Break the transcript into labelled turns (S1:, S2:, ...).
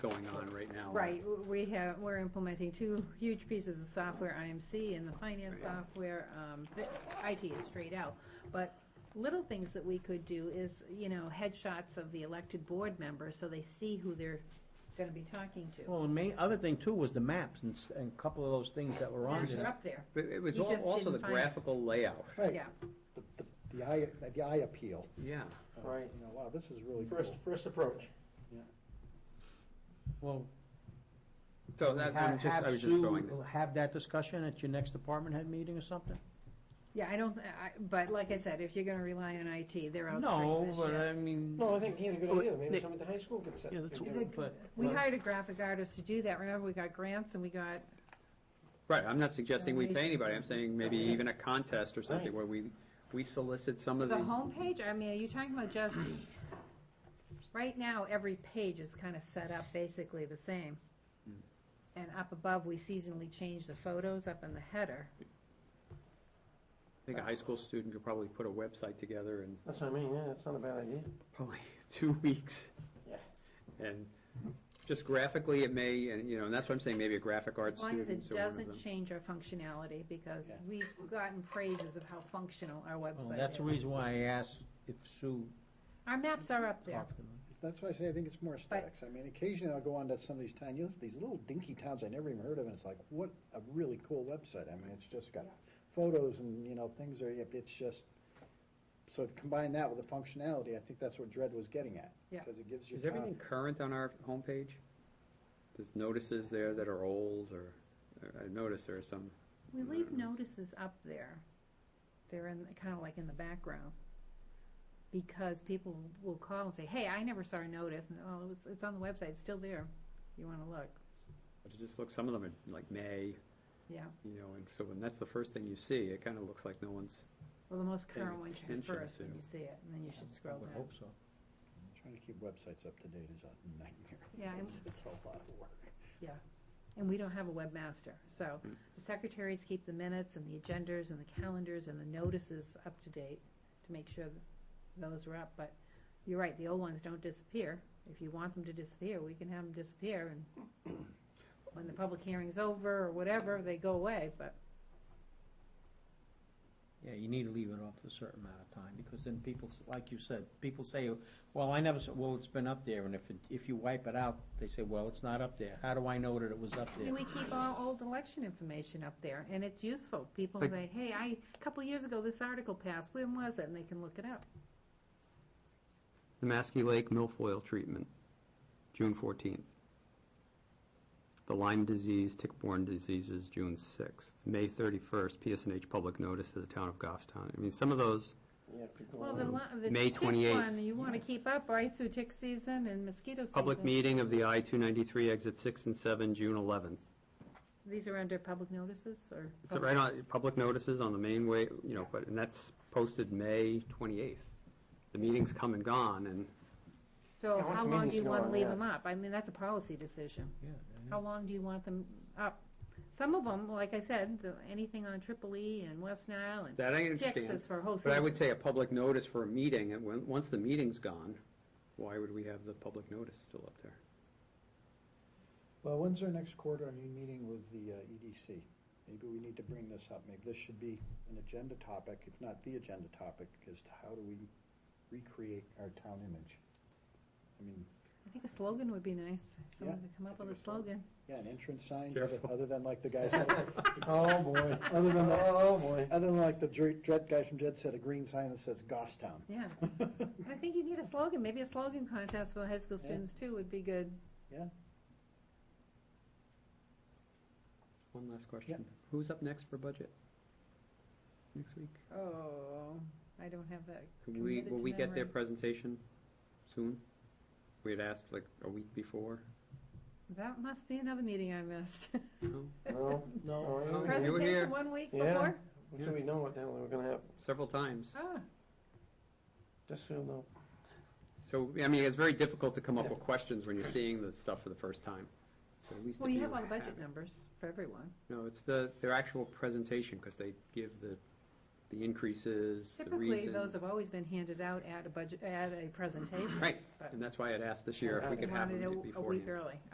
S1: going on right now.
S2: Right, w- we have, we're implementing two huge pieces of software, IMC and the finance software, um, IT is straight out. But little things that we could do is, you know, headshots of the elected board members, so they see who they're gonna be talking to.
S3: Well, the main, other thing too was the maps and, s- and a couple of those things that were on
S2: They're
S3: there.
S2: up there,
S1: But it was
S2: You
S1: al-
S2: just
S1: also
S2: didn't
S1: the
S2: find it.
S1: graphical layout.
S2: yeah.
S4: Right, the, the, the eye, the eye appeal.
S1: Yeah.
S4: Uh,
S5: Right.
S4: You know, wow, this is really cool.
S5: First, first approach.
S3: Well,
S1: So that, I
S3: have-
S1: was just, I
S3: have
S1: was just
S3: Sue
S1: throwing that.
S3: Have that discussion at your next department head meeting or something?
S2: Yeah, I don't, I, but like I said, if you're gonna rely on IT, they're out straight
S3: No,
S2: this
S3: but
S2: year.
S3: I mean.
S5: No, I think he had a good idea, maybe
S6: Nick-
S5: someone at the high school could set.
S6: Yeah, that's
S5: could
S6: what-
S5: give a-
S3: But,
S2: We hired a graphic artist to do that, remember, we got grants and we got,
S1: Right, I'm not suggesting we pay
S2: Donations.
S1: anybody, I'm saying maybe even a contest or something
S5: Right.
S1: where we, we solicit some of
S2: the
S1: the.
S2: homepage, I mean, are you talking about just, right now, every page is kinda set up basically the same. And up above, we seasonally change the photos up in the header.
S1: I think a high school student could probably put a website together in
S5: That's what I mean, yeah, that's not a bad idea.
S1: probably two weeks.
S5: Yeah.
S1: And just graphically, it may, and, you know, and that's what I'm saying, maybe a graphic arts
S2: As long
S1: student.
S2: as it
S1: or one of them.
S2: doesn't change our functionality, because
S4: Yeah.
S2: we've gotten praises of how functional our
S3: well,
S2: website is.
S3: that's the reason why I asked if Sue
S2: Our maps are up there.
S3: talked to them.
S4: That's why I say I think it's more aesthetics. I mean, occasionally I'll go on to some of these towns, you know, these little dinky towns I never even heard of, and it's like, what a really cool website. I mean, it's just got photos and, you know, things are, yep, it's just, so combine that with the functionality, I think that's what Dred was getting at.
S2: Yeah.
S4: Because it gives you.
S1: Is everything
S2: Uh,
S1: current on our homepage? There's notices there that are old, or, or I noticed there are some,
S2: We leave notices up there. They're in, kind of like in the background. Because people will call and say, hey, I never saw a notice, and, oh, it's, it's on the website, it's still there. You wanna look,
S1: it just looks, some of them are like May,
S2: yeah.
S1: you know, and so when that's the first thing you see, it kind of looks like no one's,
S2: Well, the most
S1: Paying
S2: current one should be
S1: attention
S2: first when
S1: to-
S2: you see it, and then you should
S3: I
S2: scroll
S3: would
S2: down.
S3: hope so.
S4: Trying to keep websites up to date is a nightmare.
S2: Yeah, and-
S4: It's a lot of work.
S2: And we don't have a webmaster, so the secretaries keep the minutes and the agendas and the calendars and the notices up to date to make sure that those are up, but you're right, the old ones don't disappear. If you want them to disappear, we can have them disappear and when the public hearing's over or whatever, they go away, but
S3: Yeah, you need to leave it off for a certain amount of time, because then people, s- like you said, people say, well, I never, s- well, it's been up there, and if, it- if you wipe it out, they say, well, it's not up there. How do I know that it was up
S2: I mean,
S3: there?
S2: we keep all old election information up there and it's useful. People
S1: Like-
S2: say, hey, I, a couple years ago, this article passed, when was it? And they can look it up.
S1: the Maskey Lake milfoil treatment, June fourteenth. The Lyme disease, tick-borne diseases, June sixth. May thirty-first, PSNH public notice to the town of Goffstown. I mean, some of those,
S5: Yeah, people.
S2: Well, the,
S5: want-
S2: li- the
S1: May
S2: tick
S1: 28th.
S2: one, you want to keep up right through tick season and mosquito season.
S1: public meeting of the I-293 exit six and seven, June eleventh.
S2: These are under public notices or?
S1: So right on, public notices on the main way, you know, but, and that's posted May 28th. The meeting's come and gone, and
S2: So
S5: Yeah, once
S2: how
S5: the
S2: long do
S5: meeting's
S2: you want to
S5: gone,
S2: leave
S5: yeah.
S2: them up? I mean, that's a policy decision.
S3: Yeah,
S2: How long do you want them up? Some of them, like I said, the- anything on Triple E and West Nile and
S1: that I
S2: ticks
S1: understand.
S2: is for a whole
S1: But I would
S2: season.
S1: say a public notice for a meeting, and when, once the meeting's gone, why would we have the public notice still up there?
S4: Well, when's our next quarterly meeting with the uh, EDC? Maybe we need to bring this up. Maybe this should be an agenda topic, if not the agenda topic, as to how do we recreate our town image? I mean,
S2: I think a slogan would be nice. If Someone
S4: Yeah,
S2: could come
S4: I
S2: up with a
S4: think a
S2: slogan.
S4: slogan. yeah, an entrance sign, other-
S1: Careful.
S4: other than like the guys,
S5: Oh, boy.
S4: Other than that-
S5: Oh, boy.
S4: other than like the Dr- dread guy from Dread said, a green sign that says Goffstown.
S2: Yeah. I think you need a slogan. Maybe a slogan contest for the high school
S4: Yeah.
S2: students too would be good.
S1: One last question. Who's up next for budget? Next week?
S2: Oh, I don't have that.
S1: Can we,
S2: Committed
S1: will
S2: to
S1: we get their
S2: memory.
S1: presentation soon? We had asked like a week before.
S2: That must be another meeting I missed.
S1: No?
S5: No,
S3: No,
S5: no,
S1: Present- here.
S5: no.
S2: Presentation one week
S5: Yeah.
S2: before?
S5: Until we know what the hell we're gonna have,
S1: Several times.
S2: Ah,
S5: just so you know.
S1: So, I mean, it's very difficult to come up
S5: Yeah.
S1: with questions when you're seeing the stuff for the first time. So at least
S2: well,
S1: if
S2: you have all the
S1: it.
S2: budget numbers for everyone.
S1: No, it's the, their actual presentation, because they give the, the increases, the
S2: Typically,
S1: reasons.
S2: those have always been handed out at a budget, at a presentation.
S1: Right, and that's why I'd asked this year if we could have
S2: Wanted
S1: them
S2: it a
S1: beforehand.
S2: week early.